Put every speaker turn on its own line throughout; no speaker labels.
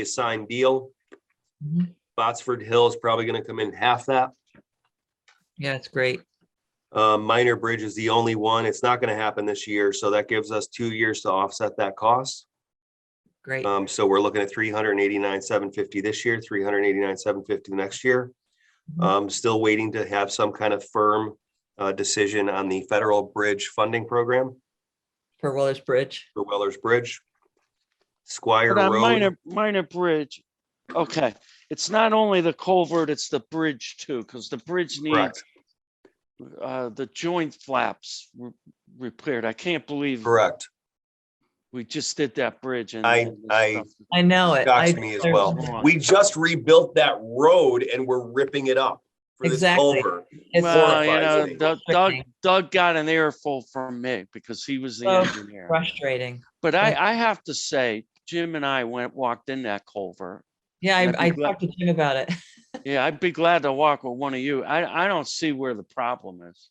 a signed deal.
Mhm.
Botsford Hill is probably gonna come in half that.
Yeah, it's great.
Uh, Minor Bridge is the only one. It's not gonna happen this year, so that gives us two years to offset that cost.
Great.
Um, so we're looking at three hundred and eighty-nine, seven fifty this year, three hundred and eighty-nine, seven fifty next year.
Mhm.
Um, still waiting to have some kind of firm uh, decision on the federal bridge funding program
For Willis Bridge.
for Weller's Bridge. Squire
But on
Road,
minor, minor bridge, okay, it's not only the culvert, it's the bridge too, because the bridge needs
correct,
uh, the joint flaps re- repaired. I can't believe
correct.
we just did that bridge and.
I-
and this
I-
stuff.
I know it. I-
Shocks me as
there's-
well.
There's-
We just rebuilt that road and we're ripping it up for this
Exactly.
culvert.
it's-
Well, you
horrifies
know,
me.
Doug, Doug,
Frightening.
Doug got an earful from me because he was the
Oh,
engineer.
Frustrating.
But I, I have to say, Jim and I went, walked in that culvert.
Yeah,
And I
I, I
think that-
talked to Jim about it.
Yeah, I'd be glad to walk with one of you. I, I don't see where the problem is.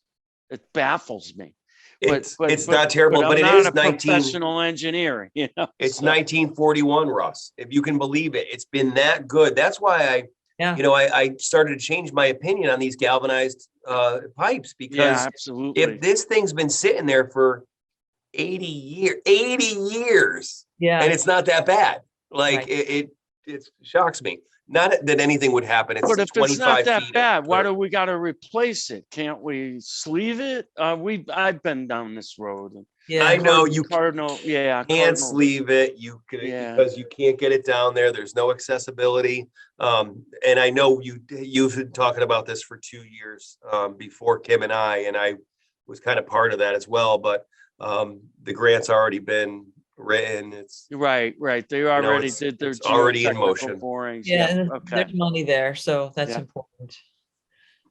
It baffles me. But-
It's,
but-
it's
but-
not terrible, but
I'm
it
not
is
a
nineteen,
Professional engineer, you know?
it's
so-
nineteen forty-one, Russ, if you can believe it. It's been that good. That's why I,
Yeah.
you know, I, I started to change my opinion on these galvanized, uh, pipes
Yeah,
because if
absolutely.
this thing's been sitting there for eighty year, eighty years and
Yeah,
it's not that bad. Like
Right.
it, it, it shocks me. Not that anything would happen.
But
It's
if it's not
twenty-five
that
feet.
bad, why
or-
do we gotta replace it? Can't we sleeve it? Uh, we, I've been down this road. and
I
yeah.
know you
Cardinal, yeah.
can't
Cardinal-
sleeve it, you could,
Yeah.
because you can't get it down there, there's no accessibility. Um, and I know you, you've been talking about this for two years, um, before Kim and I, and I was kind of part of that as well, but, um, the grant's already been written, it's,
Right, right. They already
it's-
did their.
it's already in
geotechnical
motion.
Borings,
Yeah, and
yeah,
there's-
okay.
there's money there, so that's
Yeah.
important.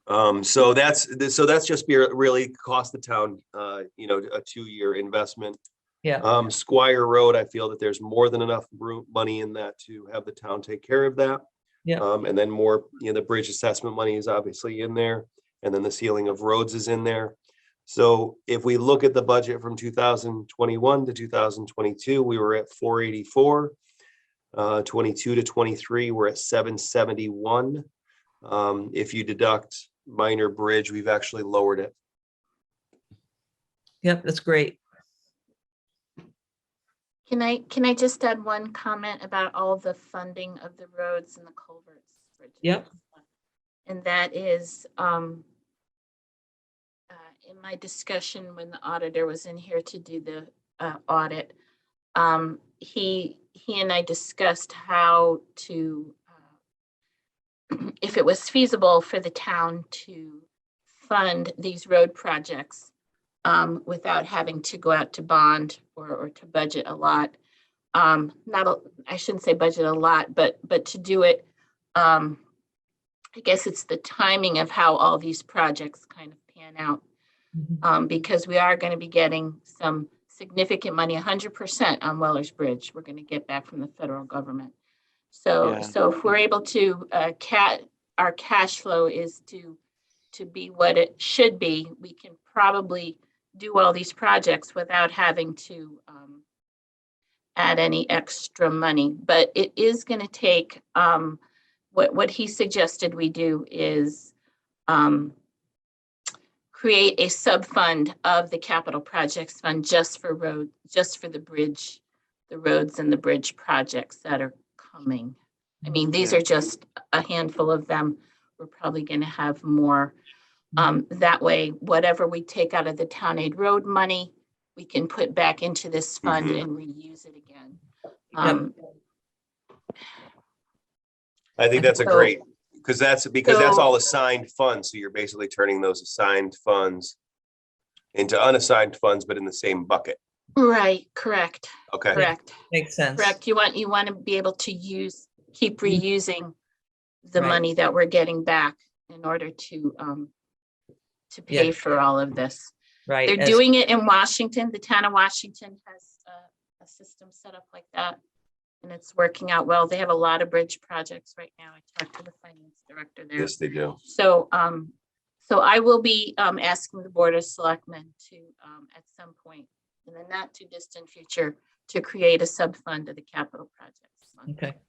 um, so that's, so that's just be- really cost the town, uh, you know, a two-year investment.
Yeah.
Um, Squire Road, I feel that there's more than enough room, money in that to have the town take care of that.
Yeah.
Um, and then more, you know, the bridge assessment money is obviously in there, and then the ceiling of roads is in there. So if we look at the budget from two thousand twenty-one to two thousand twenty-two, we were at four eighty-four. Uh, twenty-two to twenty-three, we're at seven seventy-one. Um, if you deduct minor bridge, we've actually lowered it.
Yep, that's great.
Can I, can I just add one comment about all the funding of the roads and the culverts? bridges,
Yep.
And that is, um, uh, in my discussion when the auditor was in here to do the, uh, audit, um, he, he and I discussed how to, uh, if it was feasible for the town to fund these road projects um, without having to go out to bond or, or to budget a lot. Um, not, a- I shouldn't say budget a lot, but, but to do it, um, I guess it's the timing of how all these projects kind of pan out,
Mhm.
um, because we are going to be getting some significant money, hundred percent on Weller's Bridge. We're going to get back from the federal government. So,
Yeah.
so if we're able to, uh, cat, our cash flow is to, to be what it should be, we can probably do all these projects without having to um, add any extra money. But it is going to take, um, what, what he suggested we do is um, create a sub-fund of the capital projects fund just for road, just for the bridge, the roads and the bridge projects that are coming. I mean, these
Yeah.
are just a handful of them. We're probably going to have more. Um, that way, whatever we take out of the town aid road money, we can put back into this fund
Mhm.
and reuse it again. Um,
I think that's a
So-
great, because that's, because that's
So-
all assigned funds, so you're basically turning those assigned funds into unassigned funds, but in the same bucket,
right, correct,
okay?
correct,
Makes sense.
correct. You want, you want to be able to use, keep reusing
Mm-hmm.
the
Right.
money that we're getting back in order to, um, to
Yeah.
pay for all of this.
Right.
They're
as-
doing it in Washington. The town of Washington has uh, a, a system set up like that. And it's working out well. They have a lot of bridge projects right now. I talked to the finance director there.
they do.
So, um, so I will be, um, asking the Board of Selectmen to, um, at some point in the not too distant future, to create a sub-fund of the capital projects. fund.
Okay,